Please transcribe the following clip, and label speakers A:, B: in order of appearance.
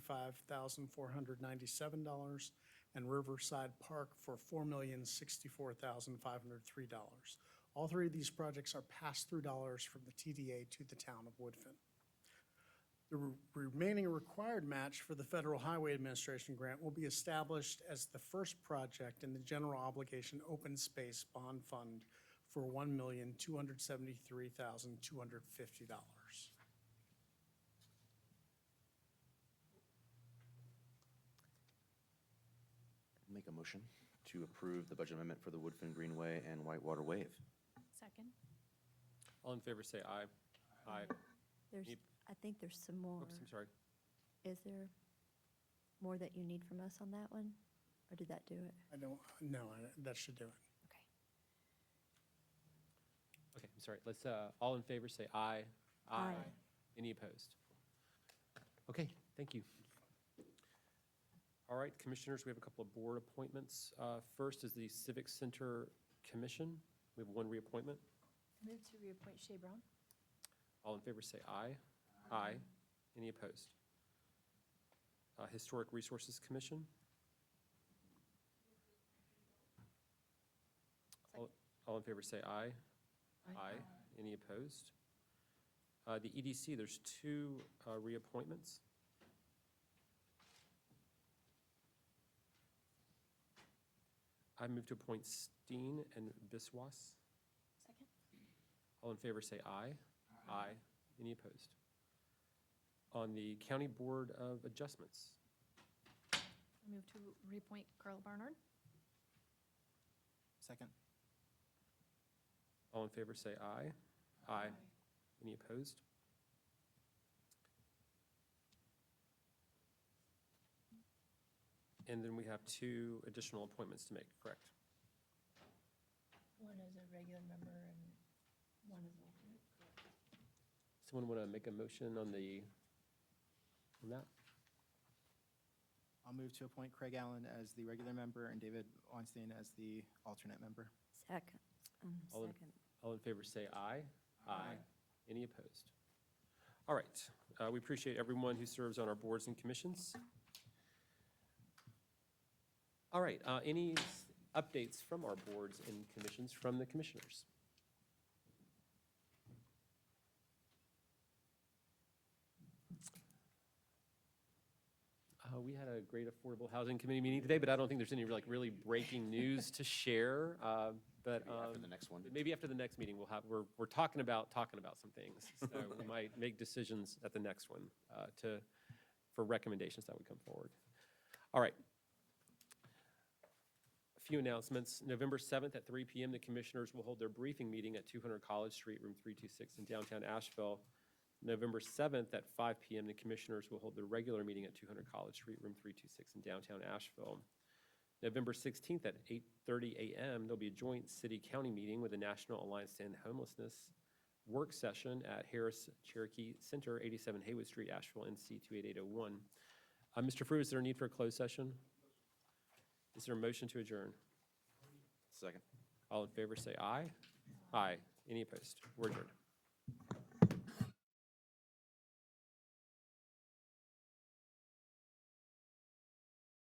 A: five thousand four hundred ninety-seven dollars, and Riverside Park for four million sixty-four thousand five hundred three dollars. All three of these projects are pass-through dollars from the TDA to the town of Woodfin. The re- remaining required match for the Federal Highway Administration grant will be established as the first project in the General Obligation Open Space Bond Fund for one million two hundred seventy-three thousand two hundred fifty dollars.
B: Make a motion to approve the budget amendment for the Woodfin Greenway and Whitewater Wave.
C: Second.
D: All in favor, say aye. Aye.
E: There's,
D: Yep.
E: I think there's some more.
D: Oops, I'm sorry.
E: Is there more that you need from us on that one? Or did that do it?
A: I don't, no, I- that should do it.
E: Okay.
D: Okay, I'm sorry. Let's, uh, all in favor, say aye.
E: Aye.
D: Any opposed? Okay, thank you. All right, commissioners, we have a couple of board appointments. Uh, First is the Civic Center Commission. We have one reappointment.
C: Move to reappoint Shea Brown.
D: All in favor, say aye. Aye. Any opposed? Uh, Historic Resources Commission? All- All in favor, say aye. Aye. Any opposed? Uh, The EDC, there's two uh, reappointments. I move to appoint Steen and Biswas.
C: Second.
D: All in favor, say aye. Aye. Any opposed? On the County Board of Adjustments,
C: I move to reappoint Carl Barnard.
F: Second.
D: all in favor, say aye. Aye. Any opposed? And then we have two additional appointments to make, correct?
C: One is a regular member and one is alternate.
D: Someone want to make a motion on the, on that?
F: I'll move to appoint Craig Allen as the regular member and David Weinstein as the alternate member.
E: Second, um,
D: All in-
E: second.
D: All in favor, say aye. Aye. Any opposed? All right, uh, we appreciate everyone who serves on our boards and commissions. All right, uh, any s- updates from our boards and commissions from the commissioners? Uh, We had a great Affordable Housing Committee meeting today, but I don't think there's any like really breaking news to share, uh, but.
B: Maybe After
D: um,
B: the next one.
D: but Maybe after the next meeting, we'll have, we're, we're talking about, talking about some things. So we might make decisions at the next one uh, to, for recommendations that would come forward. All right. A few announcements. November 7th at 3 PM, the commissioners will hold their briefing meeting at 200 College Street, room 326 in downtown Asheville. November 7th at 5 PM, the commissioners will hold their regular meeting at 200 College Street, room 326 in downtown Asheville. November 16th at 8:30 a.m., there'll be a joint city-county meeting with the National Alliance to End Homelessness work session at Harris Cherokee Center, 87 Haywood Street, Asheville, NC 28801. Uh, Mr. Frew, is there a need for a closed session? Is there a motion to adjourn?
B: Second.
D: All in favor, say aye. Aye. Any opposed? We're adjourned.